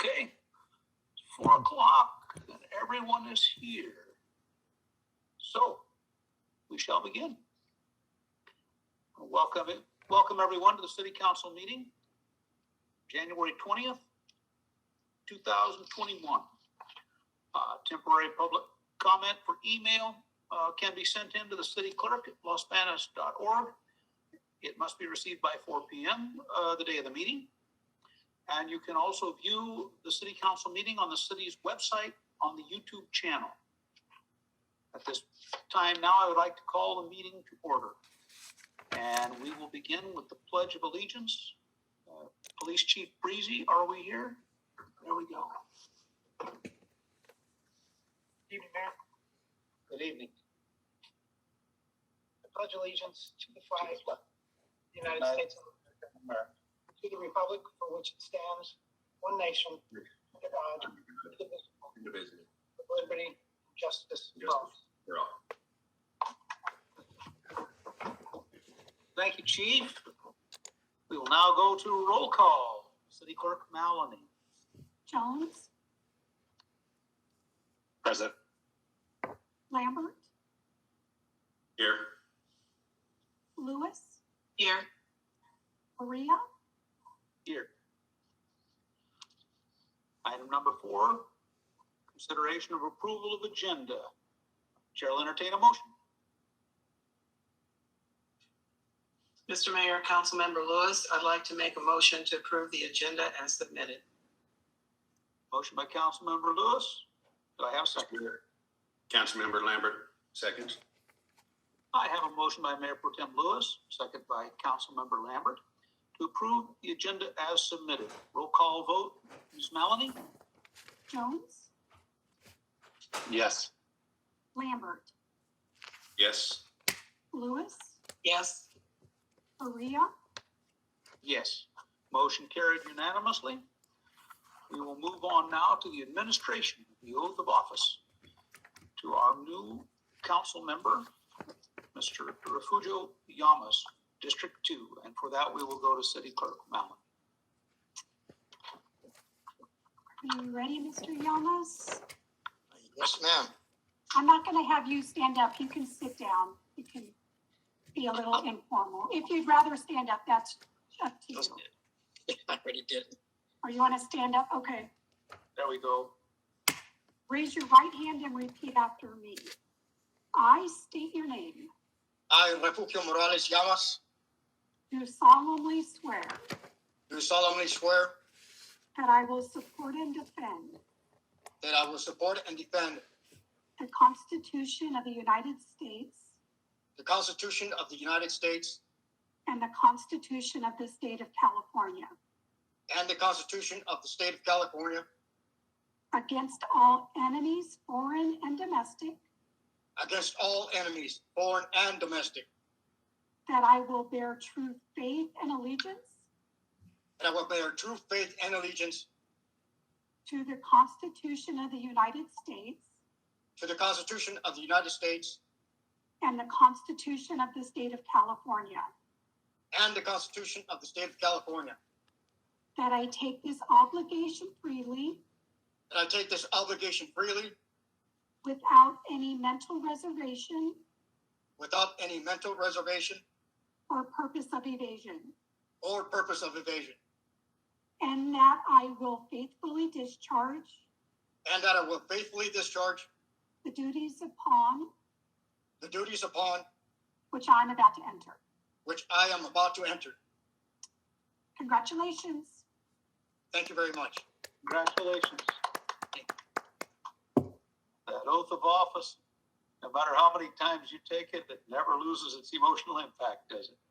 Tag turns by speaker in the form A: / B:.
A: Okay, four o'clock, and everyone is here. So, we shall begin. Welcome, welcome everyone to the city council meeting, January twentieth, two thousand twenty-one. Uh, temporary public comment for email, uh, can be sent in to the city clerk at losbanas.org. It must be received by four P M, uh, the day of the meeting. And you can also view the city council meeting on the city's website on the YouTube channel. At this time now, I would like to call the meeting to order. And we will begin with the Pledge of Allegiance. Uh, Police Chief Breezy, are we here? There we go. Evening, Mayor. Good evening.
B: pledge allegiance to the flag of the United
A: United
B: States of America, to the republic for which it stands, one nation, under God, indivisible,
A: Indivisible.
B: with liberty and justice for all.
A: Thank you, Chief. We will now go to roll call. City Clerk Maloney.
C: Jones,
A: Present.
C: Lambert,
A: Here.
C: Lewis,
A: Here.
C: Maria,
A: Here. Item number four, consideration of approval of agenda. Chair will entertain a motion.
D: Mr. Mayor, Councilmember Lewis, I'd like to make a motion to approve the agenda as submitted.
A: Motion by Councilmember Lewis. Do I have a second?
E: Councilmember Lambert, seconds.
A: I have a motion by Mayor Pro Tem Lewis, second by Councilmember Lambert, to approve the agenda as submitted. Roll call vote, Ms. Maloney?
C: Jones,
E: Yes.
C: Lambert,
E: Yes.
C: Lewis,
D: Yes,
C: Maria,
A: Yes. Motion carried unanimously. We will move on now to the administration, the oath of office. To our new council member, Mr. Refugio Yamas, District Two, and for that, we will go to City Clerk Mallon.
C: are you ready, Mr. Yamas?
F: Yes, ma'am.
C: I'm not gonna have you stand up, you can sit down, you can be a little informal. If you'd rather stand up, that's up to you.
F: I already did.
C: Or you wanna stand up, okay.
A: There we go.
C: Raise your right hand and repeat after me. I state your name,
F: I, Refugio Morales Llamas,
C: do solemnly swear
F: do solemnly swear
C: that I will support and defend
F: that I will support and defend
C: the Constitution of the United States
F: the Constitution of the United States
C: and the Constitution of the State of California
F: and the Constitution of the State of California
C: against all enemies, foreign and domestic,
F: against all enemies, foreign and domestic,
C: that I will bear true faith and allegiance
F: that I will bear true faith and allegiance
C: to the Constitution of the United States
F: to the Constitution of the United States
C: and the Constitution of the State of California,
F: and the Constitution of the State of California,
C: that I take this obligation freely
F: that I take this obligation freely
C: without any mental reservation
F: without any mental reservation
C: or purpose of evasion,
F: or purpose of evasion,
C: and that I will faithfully discharge
F: and that I will faithfully discharge
C: the duties upon
F: the duties upon
C: which I'm about to enter.
F: which I am about to enter.
C: Congratulations.
F: Thank you very much.
A: Congratulations. That oath of office, no matter how many times you take it, it never loses its emotional impact, does it?